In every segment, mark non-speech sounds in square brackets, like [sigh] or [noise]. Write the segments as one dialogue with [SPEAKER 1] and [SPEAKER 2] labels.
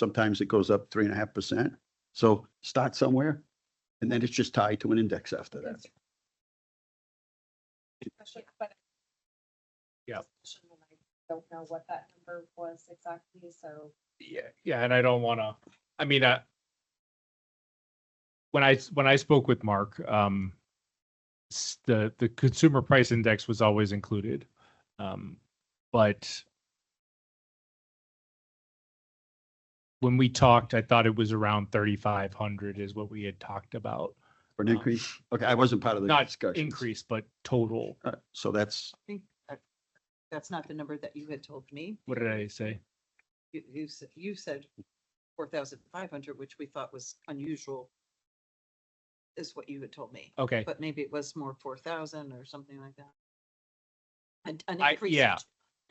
[SPEAKER 1] Sometimes it goes up three and a half percent. So start somewhere and then it's just tied to an index after that.
[SPEAKER 2] But-
[SPEAKER 3] Yeah.
[SPEAKER 2] Don't know what that number was exactly, so.
[SPEAKER 3] Yeah, yeah, and I don't wanna, I mean, I. When I, s- when I spoke with Mark, um. s- The, the consumer price index was always included, um, but. When we talked, I thought it was around thirty-five hundred is what we had talked about,
[SPEAKER 1] For an increase, okay, I wasn't part of the
[SPEAKER 3] not
[SPEAKER 1] discussion.
[SPEAKER 3] increase, but total.
[SPEAKER 1] So that's,
[SPEAKER 4] think that- that's not the number that you had told me.
[SPEAKER 3] What did I say?
[SPEAKER 4] You, you, s- you said four thousand five hundred, which we thought was unusual. Is what you had told me,
[SPEAKER 3] Okay,
[SPEAKER 4] but maybe it was more four thousand or something like that. An, an
[SPEAKER 3] I-
[SPEAKER 4] increase.
[SPEAKER 3] yeah.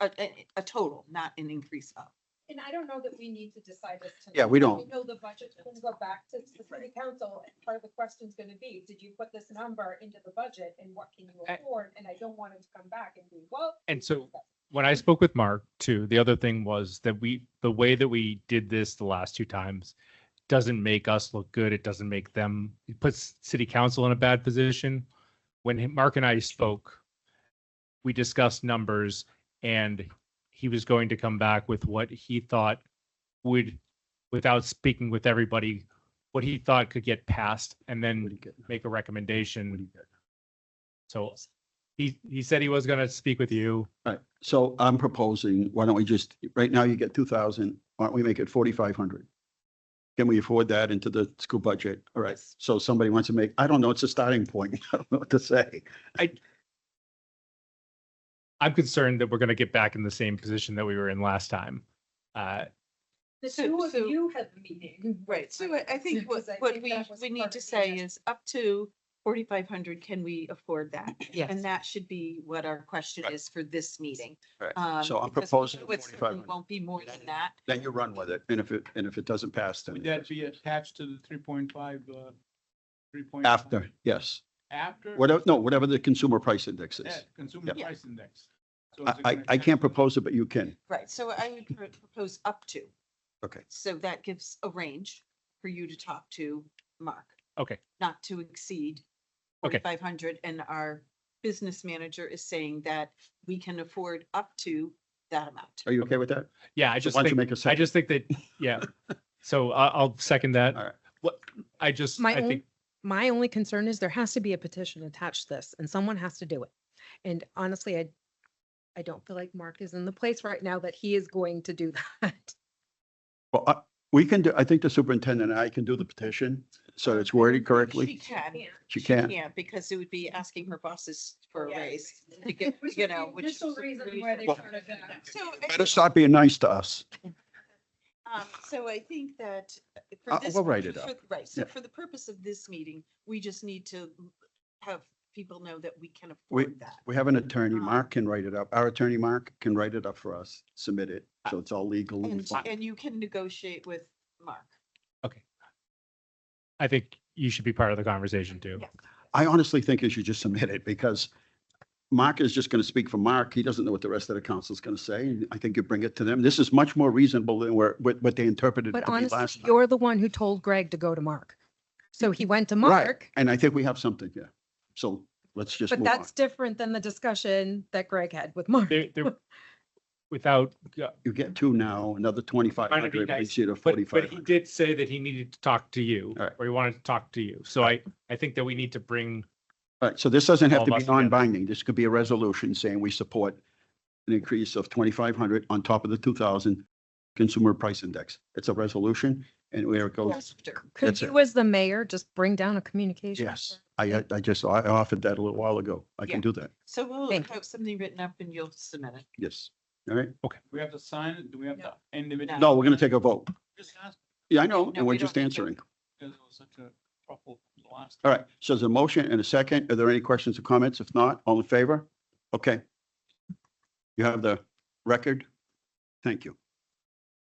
[SPEAKER 4] A, a, a total, not an increase of.
[SPEAKER 2] And I don't know that we need to decide this. tonight.
[SPEAKER 1] Yeah, we don't.
[SPEAKER 2] We know the budget's gonna go back to the city council, and part of the question's gonna be, did you put this number into the budget, and what can you
[SPEAKER 3] I-
[SPEAKER 2] afford? And I don't want him to come back and be, well.
[SPEAKER 3] And so when I spoke with Mark too, the other thing was that we, the way that we did this the last two times doesn't make us look good. It doesn't make them, it puts city council in a bad position. When he- Mark and I spoke, we discussed numbers and he was going to come back with what he thought would, without speaking with everybody, what he thought could get passed and
[SPEAKER 1] what do
[SPEAKER 3] then
[SPEAKER 1] you get? What
[SPEAKER 3] make
[SPEAKER 1] do
[SPEAKER 3] a recommendation.
[SPEAKER 1] you get?
[SPEAKER 3] So he, he said he was going to speak with you.
[SPEAKER 1] All right, so I'm proposing, why don't we just, right now you get two thousand, why don't we make it forty-five hundred? Can we afford that into the school budget? All right,
[SPEAKER 4] Yes.
[SPEAKER 1] so somebody wants to make, I don't know, it's a starting point. [laughs] I don't know what to say.
[SPEAKER 3] I'm concerned that we're going to get back in the same position that we were in last time. Uh,
[SPEAKER 2] The
[SPEAKER 4] So-
[SPEAKER 2] two of
[SPEAKER 4] so-
[SPEAKER 2] you had the meeting.
[SPEAKER 4] Right, so I, I think what,
[SPEAKER 2] Because I
[SPEAKER 4] what
[SPEAKER 2] think
[SPEAKER 4] we,
[SPEAKER 2] that was
[SPEAKER 4] we
[SPEAKER 2] part
[SPEAKER 4] need to
[SPEAKER 2] of the
[SPEAKER 4] say
[SPEAKER 2] agenda.
[SPEAKER 4] is up to forty-five hundred, can we afford that? And that should be what our question
[SPEAKER 1] Right.
[SPEAKER 4] is for this meeting.
[SPEAKER 1] Right.
[SPEAKER 4] Um,
[SPEAKER 1] So I'm
[SPEAKER 4] because
[SPEAKER 1] proposing
[SPEAKER 4] It certainly
[SPEAKER 1] 4,500.
[SPEAKER 4] won't be more than that.
[SPEAKER 1] Then you run with it, and if it, and if it doesn't pass, then.
[SPEAKER 5] Would that be attached to the three point five, uh, three point?
[SPEAKER 1] After, yes,
[SPEAKER 5] After?
[SPEAKER 1] whatever, no, whatever the consumer price index is.
[SPEAKER 5] That consumer
[SPEAKER 4] Yeah.
[SPEAKER 5] price index. So is
[SPEAKER 1] I,
[SPEAKER 5] it
[SPEAKER 1] I,
[SPEAKER 5] gonna
[SPEAKER 1] I can't
[SPEAKER 5] attach to the-
[SPEAKER 1] propose it, but you can.
[SPEAKER 4] Right, so I would pro- propose up to.
[SPEAKER 1] Okay.
[SPEAKER 4] So that gives a range for you to talk to Mark,
[SPEAKER 3] okay,
[SPEAKER 4] not to exceed
[SPEAKER 3] Okay.
[SPEAKER 4] forty-five hundred. And our business manager is saying that we can afford up to that amount.
[SPEAKER 1] Are you okay with that?
[SPEAKER 3] yeah, I
[SPEAKER 1] So
[SPEAKER 3] just
[SPEAKER 1] Why don't you make
[SPEAKER 3] think,
[SPEAKER 1] a
[SPEAKER 3] I
[SPEAKER 1] second?
[SPEAKER 3] just think that,
[SPEAKER 1] [laughs]
[SPEAKER 3] yeah. So I, I'll second that.
[SPEAKER 1] All right.
[SPEAKER 3] What, I just,
[SPEAKER 6] My
[SPEAKER 3] I
[SPEAKER 6] own-
[SPEAKER 3] think,
[SPEAKER 6] my only concern is there has to be a petition attached to this and someone has to do it. And honestly, I, I don't feel like Mark is in the place right now that he is going to do [laughs] that.
[SPEAKER 1] Well, I- we can do, I think the superintendent and I can do the petition, so it's worded
[SPEAKER 4] She
[SPEAKER 1] correctly.
[SPEAKER 4] can.
[SPEAKER 1] She can.
[SPEAKER 4] Yeah, because it would be asking her bosses for a
[SPEAKER 2] Yeah. [laughs]
[SPEAKER 4] raise to get,
[SPEAKER 2] Which
[SPEAKER 4] you
[SPEAKER 2] is the
[SPEAKER 4] know, which.
[SPEAKER 2] initial
[SPEAKER 4] is a
[SPEAKER 2] reason why they
[SPEAKER 4] reason.
[SPEAKER 2] turned it down.
[SPEAKER 4] So, I
[SPEAKER 1] Better
[SPEAKER 4] think,
[SPEAKER 1] stop being nice to us.
[SPEAKER 4] um, so I think that. uh, for
[SPEAKER 1] Uh,
[SPEAKER 4] this-
[SPEAKER 1] we'll write it
[SPEAKER 4] for-
[SPEAKER 1] up.
[SPEAKER 4] Right, so
[SPEAKER 1] Yeah.
[SPEAKER 4] for the purpose of this meeting, we just need to have people know that we can
[SPEAKER 1] We-
[SPEAKER 4] afford that.
[SPEAKER 1] We have an attorney,
[SPEAKER 4] Um,
[SPEAKER 1] Mark can write it up. Our attorney, Mark, can write it up for us, submit it, so it's all legal. and
[SPEAKER 4] And,
[SPEAKER 1] fine.
[SPEAKER 4] and you can negotiate with Mark.
[SPEAKER 3] I think you should be part of the conversation too.
[SPEAKER 4] Yeah.
[SPEAKER 1] I honestly think you should just submit it because Mark is just going to speak for Mark. He doesn't know what the rest of the council's going to say. and I think you bring it to them. This is much more reasonable than where, what, what they interpreted it
[SPEAKER 6] But
[SPEAKER 1] to be
[SPEAKER 6] honestly,
[SPEAKER 1] last time.
[SPEAKER 6] you're the one who told Greg to go to Mark. So he went to
[SPEAKER 1] Right.
[SPEAKER 6] Mark,
[SPEAKER 1] And I think we have something, yeah. So let's just
[SPEAKER 6] but
[SPEAKER 1] move on.
[SPEAKER 6] that's different than the discussion that Greg had with Mark.
[SPEAKER 3] There, there,
[SPEAKER 6] [laughs]
[SPEAKER 3] without,
[SPEAKER 1] You get two now, another twenty-five hundred,
[SPEAKER 3] nice,
[SPEAKER 1] brings you to
[SPEAKER 3] but, but
[SPEAKER 1] forty-five
[SPEAKER 3] he
[SPEAKER 1] hundred.
[SPEAKER 3] did say that he needed to talk to you
[SPEAKER 1] All right.
[SPEAKER 3] or he wanted to talk to you. So I, I think that we need to bring,
[SPEAKER 1] All right, so this doesn't have
[SPEAKER 3] All
[SPEAKER 1] to
[SPEAKER 3] of
[SPEAKER 1] be
[SPEAKER 3] us together.
[SPEAKER 1] non-binding. This could be a resolution saying we support an increase of twenty-five hundred on top of the two thousand consumer price index. It's a resolution and where it goes,
[SPEAKER 4] After.
[SPEAKER 6] Could
[SPEAKER 1] that's it.
[SPEAKER 6] you, as the mayor, just bring down a communication?
[SPEAKER 1] yes. I, I just, I offered that a little while ago. I
[SPEAKER 4] Yeah.
[SPEAKER 1] can do that.
[SPEAKER 4] So we'll
[SPEAKER 6] Thank
[SPEAKER 4] have something written up and you'll submit it.
[SPEAKER 1] Yes. All right.
[SPEAKER 5] We have to sign it, do we have to
[SPEAKER 2] No.
[SPEAKER 5] end of it?
[SPEAKER 4] No.
[SPEAKER 1] No, we're going to take a vote.
[SPEAKER 5] Just ask,
[SPEAKER 1] Yeah, I know,
[SPEAKER 4] No,
[SPEAKER 1] and we're
[SPEAKER 4] we don't
[SPEAKER 1] just
[SPEAKER 4] need to.
[SPEAKER 1] answering.
[SPEAKER 5] because it was such a trouble the last.
[SPEAKER 1] All right, so there's a motion and a second. Are there any questions or comments? If not, all in favor? Okay. You have the record. Thank you.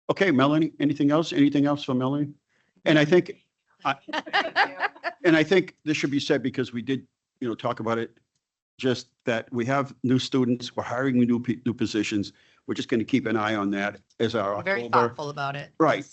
[SPEAKER 1] Okay, Melanie, anything else? Anything else for Melanie? And I think,
[SPEAKER 4] [laughs]
[SPEAKER 1] and I think this should be said because we did, you know, talk about it. Just that we have new students, we're hiring new, pe- new positions. We're just going to keep an eye on that as our
[SPEAKER 7] Very
[SPEAKER 1] October.
[SPEAKER 7] thoughtful about it.
[SPEAKER 1] Right.